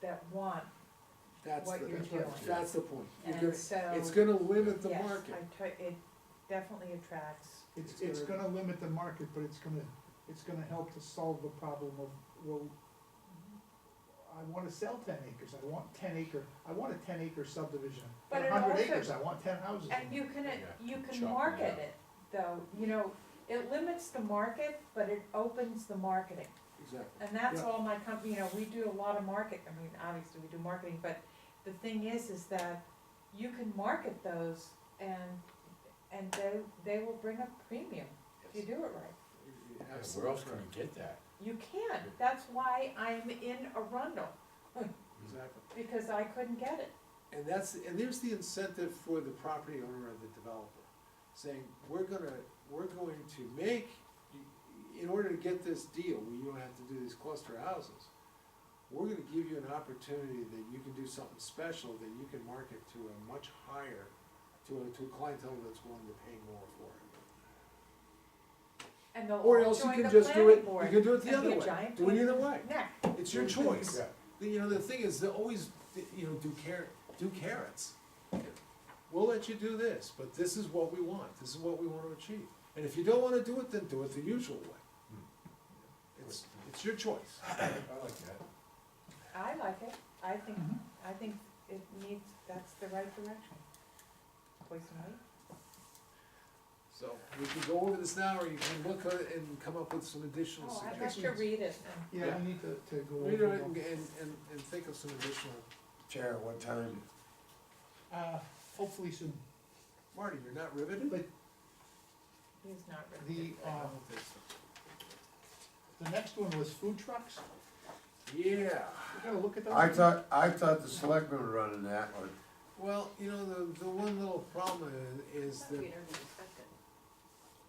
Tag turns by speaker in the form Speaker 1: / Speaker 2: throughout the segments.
Speaker 1: that want,
Speaker 2: That's
Speaker 1: What you're
Speaker 2: the,
Speaker 1: doing.
Speaker 2: that's the point. You're
Speaker 1: and
Speaker 2: gonna-
Speaker 1: so.
Speaker 2: It's gonna limit the
Speaker 1: yes,
Speaker 2: market.
Speaker 1: I try, it definitely attracts,
Speaker 3: It's,
Speaker 2: It's
Speaker 3: it's
Speaker 2: gonna-
Speaker 3: gonna limit the market, but it's gonna, it's gonna help to solve the problem of, well, I wanna sell ten acres, I want ten acre, I want a ten acre subdivision,
Speaker 1: But it
Speaker 3: a hundred
Speaker 1: also-
Speaker 3: acres, I want ten houses. in
Speaker 1: and you
Speaker 3: it.
Speaker 1: can,
Speaker 4: Yeah,
Speaker 1: you can
Speaker 4: chop it
Speaker 1: market
Speaker 4: up.
Speaker 1: it, though, you know, it limits the market, but it opens the marketing.
Speaker 2: Exactly.
Speaker 1: And that's
Speaker 3: Yeah.
Speaker 1: all my company, you know, we do a lot of market, I mean, obviously we do marketing, but the thing is, is that you can market those and, and they, they will bring a premium if you do it right.
Speaker 2: You're
Speaker 4: Yeah, Where
Speaker 2: absolutely
Speaker 4: else can
Speaker 2: correct.
Speaker 4: you get that?
Speaker 1: You can, that's why I'm in Arundel,
Speaker 2: Exactly.
Speaker 1: because I couldn't get it.
Speaker 2: And that's, and there's the incentive for the property owner or the developer, saying, we're gonna, we're going to make, in order to get this deal, where you don't have to do these cluster houses, we're gonna give you an opportunity that you can do something special, that you can market to a much higher, to a, to a clientele that's willing to pay more for it.
Speaker 1: And they'll
Speaker 2: Or
Speaker 1: all
Speaker 2: else you
Speaker 1: join the
Speaker 2: can just do
Speaker 1: planning
Speaker 2: it, you
Speaker 1: board.
Speaker 2: can do it the
Speaker 1: and be
Speaker 2: other
Speaker 1: a
Speaker 2: way,
Speaker 1: giant
Speaker 2: do it
Speaker 1: pain
Speaker 2: either
Speaker 1: in the
Speaker 2: way,
Speaker 1: neck.
Speaker 2: it's your choice.
Speaker 4: Yeah.
Speaker 2: The- You know, the thing is, they always, you know, do carrot, do carrots. We'll let you do this, but this is what we want, this is what we wanna achieve. And if you don't wanna do it, then do it the usual way. It's, it's your choice.
Speaker 4: I like that.
Speaker 1: I like it, I think,
Speaker 3: Mhm.
Speaker 2: Mm-hmm.
Speaker 1: I think it needs, that's the right direction. Poison Lake?
Speaker 2: So we can go over this now, or you can look at it and come up with some additional
Speaker 1: Oh, I'd
Speaker 2: suggestions.
Speaker 1: like to read it and
Speaker 3: Yeah,
Speaker 2: Yeah.
Speaker 3: we need to, to go
Speaker 2: Read it
Speaker 3: over
Speaker 2: and,
Speaker 3: them.
Speaker 2: and, and think of some additional,
Speaker 4: Chair, what time?
Speaker 3: Uh, hopefully soon,
Speaker 2: Marty, you're not riveted?
Speaker 3: but
Speaker 1: he's not really.
Speaker 2: I
Speaker 3: the, um,
Speaker 2: don't think so.
Speaker 3: the next one was food trucks,
Speaker 2: Yeah.
Speaker 3: we gotta look at those.
Speaker 5: I thought, I thought the selectmen were running that one.
Speaker 2: Well, you know, the, the one little problem i- is that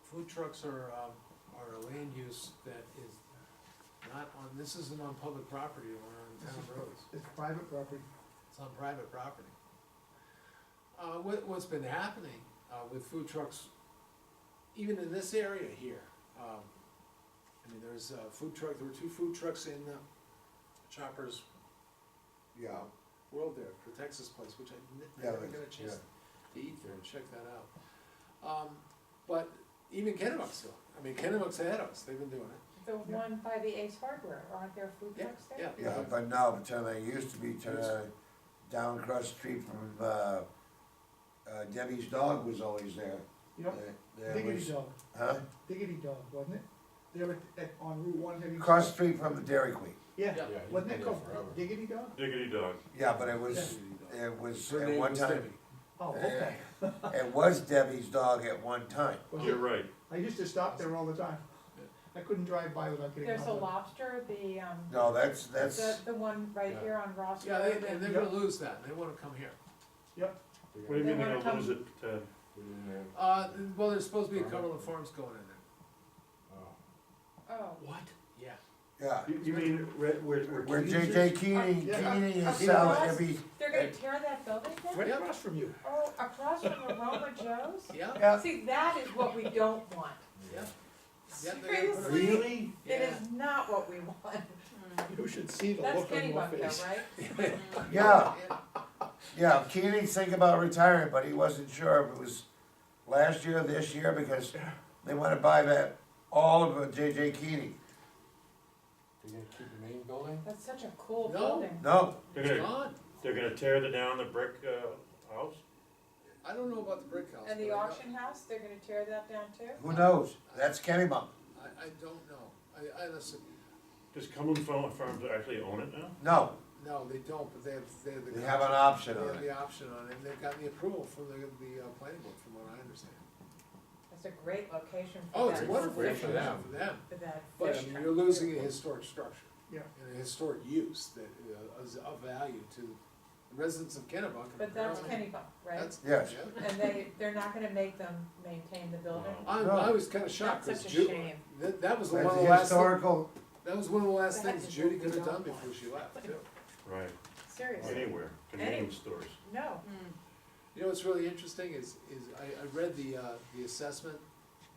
Speaker 2: food trucks are, um, are a land use that is not on, this isn't on public property or on
Speaker 3: This
Speaker 2: town
Speaker 3: is-
Speaker 2: roads,
Speaker 3: It's private property,
Speaker 2: it's on private property. Uh, what, what's been happening, uh, with food trucks, even in this area here, um, I mean, there's a food truck, there were two food trucks in uh, Chopper's
Speaker 5: Yeah.
Speaker 2: World there, for Texas place, which I
Speaker 5: Yeah,
Speaker 2: never
Speaker 5: that's-
Speaker 2: got a chance to eat there,
Speaker 4: Yeah.
Speaker 2: check that out. Um, but even Kennebunk's still, I mean, Kennebunk's ahead of us, they've been doing it.
Speaker 1: The one by the Ace Hardware, aren't there food
Speaker 2: Yeah,
Speaker 1: trucks there?
Speaker 2: yeah.
Speaker 5: Yeah, but now, but then I used to be to, uh, down across the street from, uh, uh, Debbie's dog was always there.
Speaker 3: you know,
Speaker 5: There- there
Speaker 3: Diggity
Speaker 5: was-
Speaker 3: Dog,
Speaker 5: Huh?
Speaker 3: Diggity Dog, wasn't it? They were at, on Route one, have you?
Speaker 5: Across the street from the Dairy Queen.
Speaker 3: Yeah,
Speaker 2: Yeah.
Speaker 3: wasn't it called
Speaker 4: Forever.
Speaker 3: Diggity Dog?
Speaker 6: Diggity dog.
Speaker 5: Yeah, but it was, it was,
Speaker 2: Her
Speaker 5: at
Speaker 2: name
Speaker 5: one
Speaker 2: was
Speaker 5: time,
Speaker 2: Debbie.
Speaker 3: Oh, okay,
Speaker 5: it was Debbie's dog at one time.
Speaker 3: was
Speaker 6: You're
Speaker 3: it?
Speaker 6: right.
Speaker 3: I used to stop there all the time. I couldn't drive by without getting.
Speaker 1: There's
Speaker 3: on
Speaker 1: a
Speaker 3: the-
Speaker 1: lobster, the, um,
Speaker 5: No, that's,
Speaker 1: the,
Speaker 5: that's,
Speaker 1: the one right
Speaker 4: Yeah.
Speaker 1: here on Ross
Speaker 2: Yeah,
Speaker 1: Road.
Speaker 2: they, and they're gonna lose that, they wanna come here.
Speaker 6: What do you mean
Speaker 1: They
Speaker 6: they're
Speaker 1: wanna
Speaker 6: gonna lose it, Ted?
Speaker 2: Uh, well, there's supposed to be a Cumberland
Speaker 5: Uh-huh.
Speaker 2: Farms going in there.
Speaker 4: uh,
Speaker 1: Oh,
Speaker 2: What? Yeah.
Speaker 5: yeah.
Speaker 6: You, you mean where, where,
Speaker 5: Where
Speaker 6: Keys is?
Speaker 5: JJ Keeney,
Speaker 3: Yeah.
Speaker 5: Keeney
Speaker 1: Uh,
Speaker 5: is selling
Speaker 1: yeah.
Speaker 5: every,
Speaker 1: they're gonna tear that building down?
Speaker 3: Right across from you.
Speaker 1: Oh, across from Aroma Joe's?
Speaker 2: Yeah,
Speaker 5: yeah,
Speaker 1: See, that is what we don't want.
Speaker 2: yeah. Yeah, they're gonna put a-
Speaker 1: Seriously, it
Speaker 2: Yeah.
Speaker 1: is not what we want.
Speaker 3: You should see the
Speaker 1: That's
Speaker 3: look on your
Speaker 1: Kennybunk
Speaker 3: face.
Speaker 1: though, right?
Speaker 5: yeah. Yeah, Keeney's thinking about retiring, but he wasn't sure if it was last year or this year because they wanna buy that, all of uh, JJ Keeney.
Speaker 4: You gonna keep the main building?
Speaker 1: That's such a cool
Speaker 2: No.
Speaker 1: building.
Speaker 5: No,
Speaker 6: They're
Speaker 2: It's
Speaker 6: gonna,
Speaker 2: gone.
Speaker 6: they're gonna tear the down the brick, uh, house?
Speaker 2: I don't know about the brick house.
Speaker 1: And the
Speaker 2: but I know-
Speaker 1: auction house, they're gonna tear that down too?
Speaker 5: who knows? That's Kenny Bump.
Speaker 2: I, I don't know, I, I honestly,
Speaker 6: Does Cumberland Farm- Farms actually own it now?
Speaker 5: No,
Speaker 2: no, they don't, but they have, they have the.
Speaker 5: they have an
Speaker 2: contract.
Speaker 5: option
Speaker 2: They
Speaker 5: on
Speaker 2: have
Speaker 5: it.
Speaker 2: the option on it, and they've gotten the approval from the, the uh, planning board, from what I understand.
Speaker 1: That's a great location for that.
Speaker 2: Oh, it's wonderful.
Speaker 4: Great for
Speaker 1: fish-
Speaker 4: them.
Speaker 2: For them,
Speaker 1: For that
Speaker 2: but I
Speaker 1: fish
Speaker 2: mean,
Speaker 1: tank.
Speaker 2: you're losing a historic structure.
Speaker 3: Yeah.
Speaker 2: And a historic use that uh, is of value to the residents of Kennebunk. and
Speaker 1: But that's
Speaker 2: apparently-
Speaker 1: Kennybunk, right?
Speaker 2: That's,
Speaker 5: Yes.
Speaker 2: yeah.
Speaker 1: And they, they're not gonna make them maintain the building?
Speaker 6: Wow.
Speaker 2: I, I was kinda shocked,
Speaker 1: That's
Speaker 2: cause
Speaker 1: such a
Speaker 2: Judy,
Speaker 1: shame.
Speaker 2: that, that was one of the
Speaker 5: That's
Speaker 2: last,
Speaker 5: historical,
Speaker 2: that was one of the last
Speaker 1: That
Speaker 2: things
Speaker 1: is
Speaker 2: Judy
Speaker 1: what we
Speaker 2: could've done
Speaker 1: don't
Speaker 2: before she left, too.
Speaker 6: Right,
Speaker 1: Seriously,
Speaker 6: anywhere, convenience stores.
Speaker 1: no.
Speaker 2: You know what's really interesting is, is I, I read the, uh, the assessment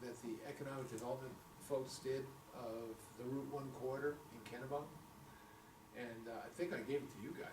Speaker 2: that the economic development folks did of the Route One corridor in Kennebunk. And uh, I think I gave it to you guys,